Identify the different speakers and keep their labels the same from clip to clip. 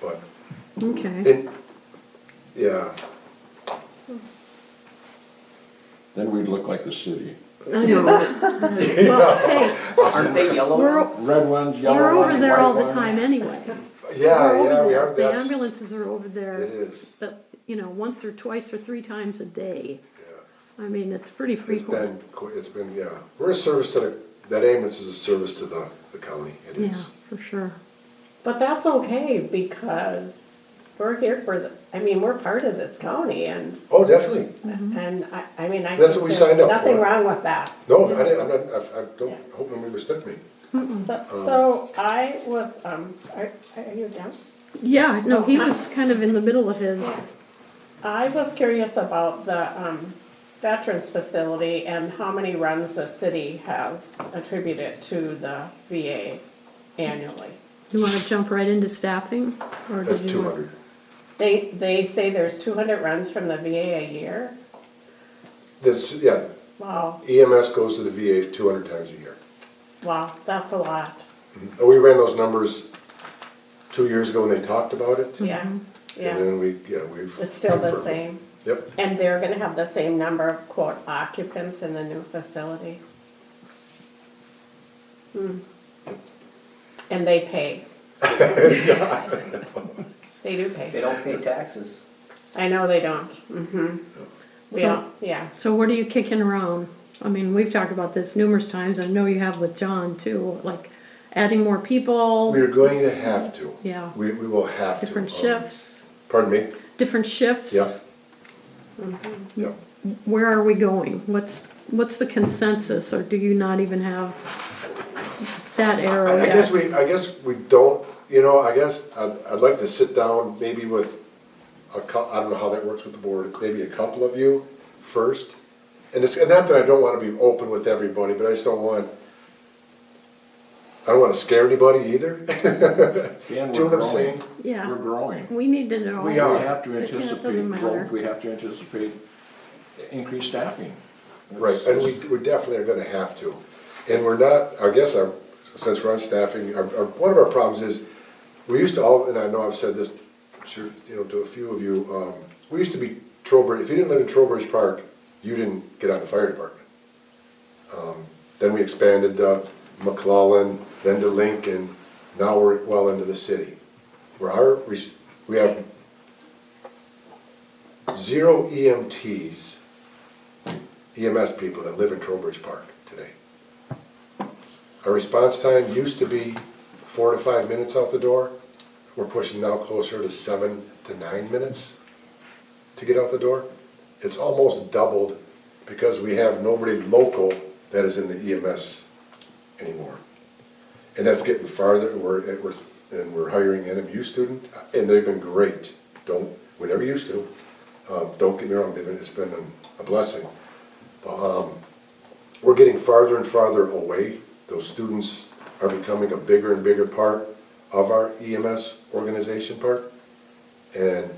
Speaker 1: but
Speaker 2: Okay,
Speaker 1: it, yeah,
Speaker 3: Then we'd look like the city.
Speaker 2: I know. Well, hey,
Speaker 4: Aren't they
Speaker 2: we're,
Speaker 4: yellow?
Speaker 2: o-
Speaker 3: Red ones,
Speaker 2: we're
Speaker 3: yellow ones,
Speaker 2: over there
Speaker 3: white
Speaker 2: all the
Speaker 3: ones.
Speaker 2: time anyway. We're
Speaker 1: yeah,
Speaker 2: over
Speaker 1: yeah, we
Speaker 2: there.
Speaker 1: are,
Speaker 2: The
Speaker 1: that's, it
Speaker 2: ambulances are over there,
Speaker 1: is,
Speaker 2: but, you know, once or twice or three times a day.
Speaker 1: yeah.
Speaker 2: I mean, it's pretty
Speaker 1: It's
Speaker 2: frequent.
Speaker 1: been, qu- it's been, yeah, we're a service to the, that ambulance is a service to the, the county, it
Speaker 2: Yeah,
Speaker 1: is.
Speaker 2: for sure.
Speaker 5: But that's okay because we're here for the, I mean, we're part of this county and,
Speaker 1: Oh, definitely,
Speaker 5: and I, I mean, I.
Speaker 1: That's
Speaker 5: think
Speaker 1: what we
Speaker 5: there's
Speaker 1: signed up for.
Speaker 5: Nothing wrong with that.
Speaker 1: no, I didn't, I'm not, I, I don't,
Speaker 5: Yeah.
Speaker 1: I hope nobody mistook me. Um,
Speaker 5: So, so I was, um, are, are you down?
Speaker 2: Yeah, no, he
Speaker 5: Oh, hi.
Speaker 2: was kind of in the middle of his,
Speaker 5: I was curious about the, um, veterans facility and how many runs the city has attributed to the VA annually.
Speaker 2: you wanna jump right into staffing? or
Speaker 1: That's
Speaker 2: did you
Speaker 1: two
Speaker 2: want-
Speaker 1: hundred.
Speaker 5: They, they say there's two hundred runs from the VA a year.
Speaker 1: That's, yeah,
Speaker 5: Wow,
Speaker 1: EMS goes to the VA two hundred times a year.
Speaker 5: wow, that's a lot,
Speaker 1: And we ran those numbers two years ago when they talked about it.
Speaker 5: yeah, yeah.
Speaker 1: And then we, yeah, we've.
Speaker 5: It's still the
Speaker 1: confirmed it.
Speaker 5: same,
Speaker 1: Yep,
Speaker 5: and they're gonna have the same number of quote occupants in the new facility. Hmm. And they pay. They do
Speaker 4: They
Speaker 5: pay,
Speaker 4: don't pay taxes.
Speaker 5: I know they don't, mm-hmm, yeah, yeah,
Speaker 2: So what are you kicking around? I mean, we've talked about this numerous times, I know you have with John too, like adding more people,
Speaker 1: we're going to have to.
Speaker 2: Yeah.
Speaker 1: We, we will have to.
Speaker 2: different
Speaker 1: Um,
Speaker 2: shifts,
Speaker 1: Pardon me?
Speaker 2: different shifts.
Speaker 1: Yep. Yep.
Speaker 2: Where are we going? What's, what's the consensus, or do you not even have that arrow
Speaker 1: I, I
Speaker 2: yet?
Speaker 1: guess we, I guess we don't, you know, I guess I'd, I'd like to sit down maybe with a cou, I don't know how that works with the board, maybe a couple of you first. And it's, and not that I don't wanna be open with everybody, but I just don't want, I don't wanna scare anybody either.
Speaker 3: And
Speaker 1: Do you
Speaker 3: we're
Speaker 1: know what I'm
Speaker 3: growing.
Speaker 1: saying?
Speaker 2: Yeah.
Speaker 3: We're growing.
Speaker 2: We need to know.
Speaker 1: We
Speaker 3: We
Speaker 1: are.
Speaker 3: have to
Speaker 2: It- yeah, it
Speaker 3: anticipate
Speaker 2: doesn't matter.
Speaker 3: growth, we have to anticipate increased staffing.
Speaker 1: Right, and we, we definitely are gonna have to. And we're not, I guess, our, since we're on staffing, our, our, one of our problems is, we used to all, and I know I've said this, I'm sure, you know, to a few of you, um, we used to be Trowbridge, if you didn't live in Trowbridge Park, you didn't get on the fire department. Um, Then we expanded to McClellan, then to Lincoln, now we're well into the city. Where our, res- we have zero E EMTs EMS E people that live in Trowbridge Park today. Our response time used to be four to five minutes out the door. We're pushing now closer to seven to nine minutes to get out the door. It's almost doubled because we have nobody local that is in the EMS anymore. And that's getting farther, we're, we're, and we're hiring NMU student, and they've been great. Don't, we never used to. Um, don't get me wrong, they've been, it's been a blessing we're getting farther and farther away. Those students are becoming a bigger and bigger part of our EMS organization part. And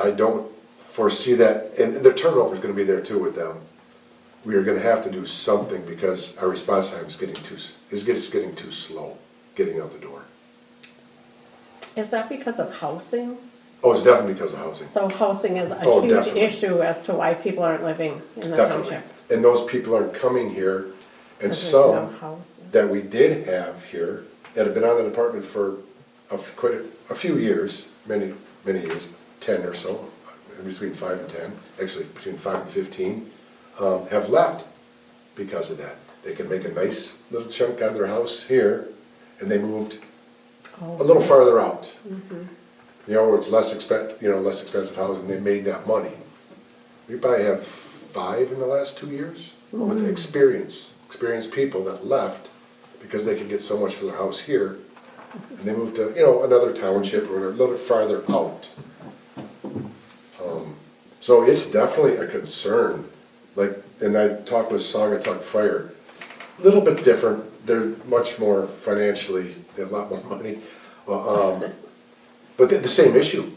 Speaker 1: I don't foresee that, and the turnover is gonna be there too with them. We are gonna have to do something because our response time is getting too, is just getting too slow, getting out the door.
Speaker 5: is that because of housing?
Speaker 1: Oh, it's definitely because of housing,
Speaker 5: So housing is
Speaker 1: Oh,
Speaker 5: a huge
Speaker 1: definitely.
Speaker 5: issue as to why people aren't living in the
Speaker 1: definitely.
Speaker 5: township.
Speaker 1: And those people aren't coming here, and
Speaker 5: There's
Speaker 1: some.
Speaker 5: no housing.
Speaker 1: that we did have here, that have been on the department for a, f- quite a, a few years, many, many years, ten or so, between five and ten, actually between five and fifteen, um, have left because of that. They could make a nice little chunk out of their house here, and they moved a little farther out. You know, where it's less expen, you know, less expensive housing, they made that money. We probably have five in the last two years with experience, experienced people that left because they could get so much for their house here. And they moved to, you know, another township or a little farther out. Um, So it's definitely a concern, like, and I talked with Sagatuck Fire, a little bit different, they're much more financially, they have a lot more money. Uh, um, but the, the same issue.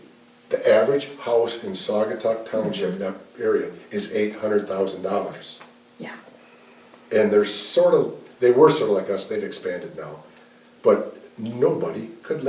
Speaker 1: The average house in Saugatuck Township, that area, is eight hundred thousand dollars.
Speaker 2: Yeah.
Speaker 1: And they're sort of, they were sort of like us, they've expanded now. But nobody could live